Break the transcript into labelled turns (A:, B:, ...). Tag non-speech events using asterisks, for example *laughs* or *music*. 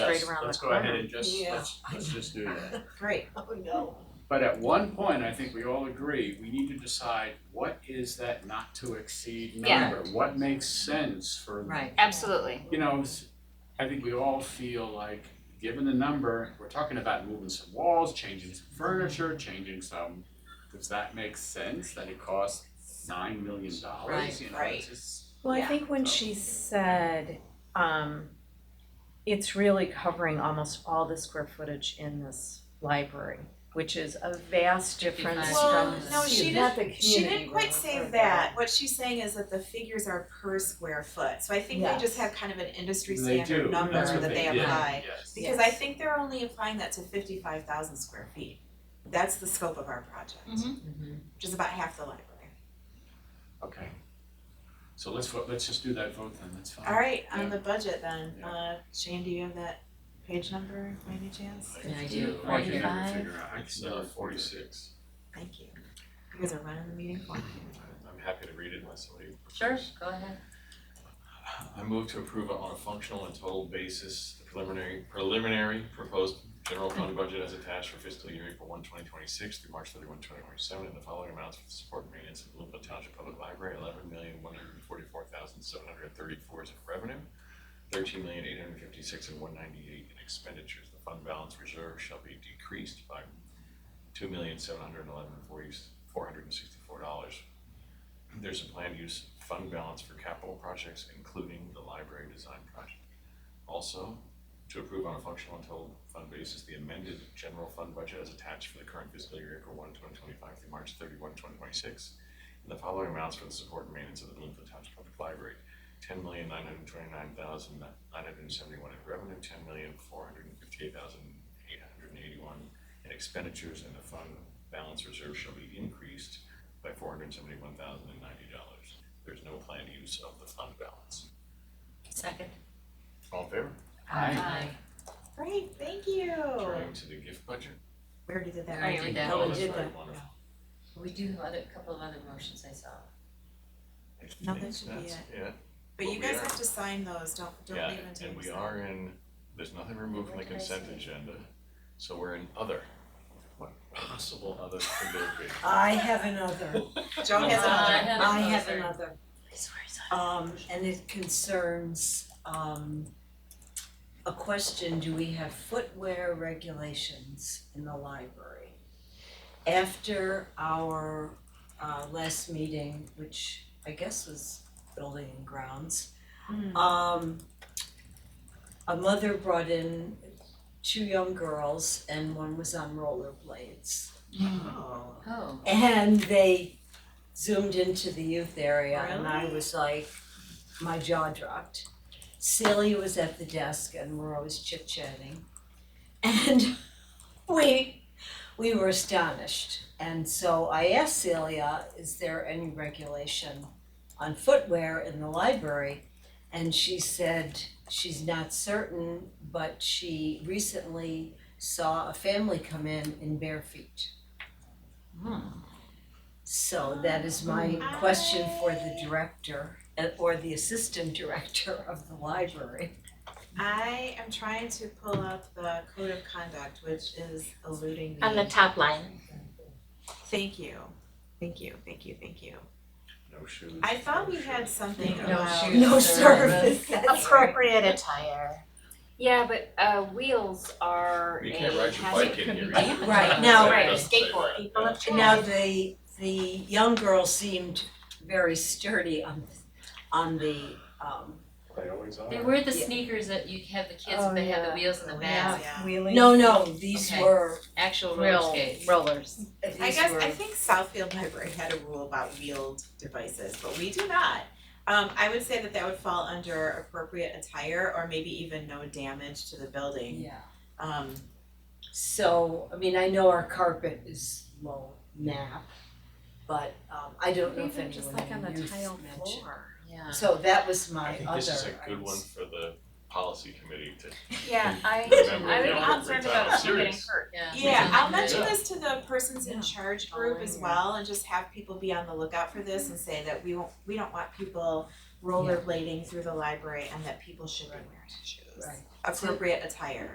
A: straight around the
B: let's go
A: corner.
B: ahead and just,
C: Yeah.
B: let's, let's just do
D: *laughs*
B: that.
C: Great.
D: Oh, no.
B: But at one point, I think we all agree, we need to decide what is that not to exceed
A: Yeah.
B: number? What makes sense for
C: Right.
A: Absolutely.
B: you know, s- I think we all feel like, given the number, we're talking about moving some walls, changing some furniture, changing some, does that make sense that it costs nine million dollars,
C: Right,
B: you know,
D: right.
B: it's just.
E: Well, I
D: Yeah.
E: think when
B: So-
E: she said, um, it's really covering almost all the square footage in this library, which is a vast difference from.
D: Well,
C: from
D: no,
C: the
D: she
C: student,
D: didn't,
C: not the
D: she
C: community
D: didn't quite
C: room
D: say
C: or
D: that, what she's saying is that the figures are per square foot, so I think they just
C: Yes.
D: have kind of an industry
B: They do,
D: standard number
B: that's what
D: that
B: they
D: they apply.
B: did,
D: Because I
C: Yes.
D: think they're only applying that to fifty-five thousand square feet, that's the scope of our project,
A: Mhm.
D: which is about half the library.
B: okay. So let's vote, let's just do that vote then, that's fine.
D: Alright,
B: Yeah.
D: on the budget then,
B: Yeah.
D: uh, Shane, do you have that page number, by any chance?
B: I
C: Can I
B: do,
C: do
B: I can never
E: 45?
B: figure out, I can never forty six.
D: Thank you, you guys are running the meeting for me.
F: I'm happy to read it unless somebody prefers.
A: Sure, go ahead.
F: I move to approve on a functional and total basis the preliminary, preliminary proposed general fund budget as attached for fiscal year April 1, 2026 through March 31, 2027, and the following amounts for the support and maintenance of the Bloomfield Township Public Library, eleven million, one hundred and forty-four thousand, seven hundred and thirty-four is in revenue, thirteen million, eight hundred and fifty-six and one ninety-eight in expenditures. The fund balance reserve shall be decreased by two million, seven hundred and eleven, four hundred and sixty-four dollars there's a planned use fund balance for capital projects, including the library design project. Also, to approve on a functional and total fund basis, the amended general fund budget as attached for the current fiscal year, April 1, 2025 through March 31, 2026, And the following amounts for the support and maintenance of the Bloomfield Township Public Library, ten million nine hundred twenty-nine thousand nine hundred seventy-one in revenue, ten million four hundred fifty-eight thousand eight hundred eighty-one in expenditures, and the fund balance reserve shall be increased by four hundred seventy-one thousand and ninety dollars. There's no planned use of the fund balance.
A: Second.
F: All in favor?
D: Great, thank you.
F: Turning to the gift budget.
D: We already did that,
A: Alright,
D: right?
A: we did.
D: Oh,
F: Oh,
D: we
F: that's
D: did
F: right,
D: that.
F: wonderful.
A: We do have other, a couple of other motions I saw.
F: I
D: No, that
F: think
D: should be
F: that's it.
D: But
F: But
D: you
F: we
D: guys
F: are-
D: have to sign those, don't, don't
F: Yeah,
D: leave until
F: and
D: you
F: we
D: sign.
F: are in, there's nothing removed from the
A: What did I
F: consent
A: say?
F: agenda, so we're in other. What possible other could there be?
C: I have another,
D: Joe has
A: I
D: another.
A: have
C: I have
A: another.
C: another,
A: I swear I saw
C: um, and it concerns, um, a question, do we have footwear regulations in the library? After our, uh, last meeting, which I guess was building and grounds,
D: Mm.
C: Um, a mother brought in two young girls and one was on rollerblades.
D: Oh.
A: it. Oh.
C: And they zoomed into the youth area and I was like, my jaw dropped. Celia was at the desk and we're always chit chatting. And *laughs* we, we were astonished. And so I asked Celia, is there any regulation on footwear in the library? And she said she's not certain, but she recently saw a family come in in bare feet.
A: Hmm.
C: So that is my question for the director uh, or the assistant director of the library.
D: I am trying to pull up the code of conduct, which is eluding me.
A: On the top line.
D: Thank you, thank you, thank you, thank you.
F: No shoes.
D: I thought
F: no
D: we had
F: shoes.
D: something
A: No
D: about.
A: shoes. No service.
C: That's right.
A: Appropriate attire. Yeah, but uh wheels are
F: You can't
A: a
F: ride your
A: hazard.
F: bike in here.
A: Could be-
F: either.
C: *laughs* Right, now-
F: It
A: Right,
F: doesn't say that,
A: skateboard, people
F: yeah.
A: have
C: And Now, the, the young girl seemed very sturdy on, on the, um,
B: They always are.
G: They wear the
C: Yeah.
G: sneakers that you have the kids,
E: Oh,
G: but they have
E: yeah.
G: the wheels in the back,
D: Yeah.
E: Wheeling.
C: no, no, these
G: Okay.
C: were,
G: actual roller
A: Real
G: skates.
A: rollers.
C: these were.
D: I guess, I think Southfield Library had a rule about wheeled devices, but we do not. Um, I would say that that would fall under appropriate attire or maybe even no damage to the building.
C: Yeah.
D: Um,
C: So, I mean, I know our carpet is low nap, but, um, I don't know if
E: Even
C: anyone
E: just like on
C: in
E: the
C: youth
E: tile
C: mentioned.
E: floor.
G: Yeah.
C: So that was my
F: I
C: other.
F: think this is a good
C: I
F: one
C: was-
F: for the policy committee to
A: Yeah, I
F: Remember,
A: I
F: yeah,
A: would be
F: we're
A: concerned
F: talking
A: about people getting
F: serious.
A: hurt.
D: Yeah, I'll
F: Yeah.
D: mention this to the persons in charge group as
E: Following
D: well and just have people be on the lookout for this and say that we won't, we don't want people rollerblading through the library and that people should be wearing shoes.
C: Right.
D: appropriate attire.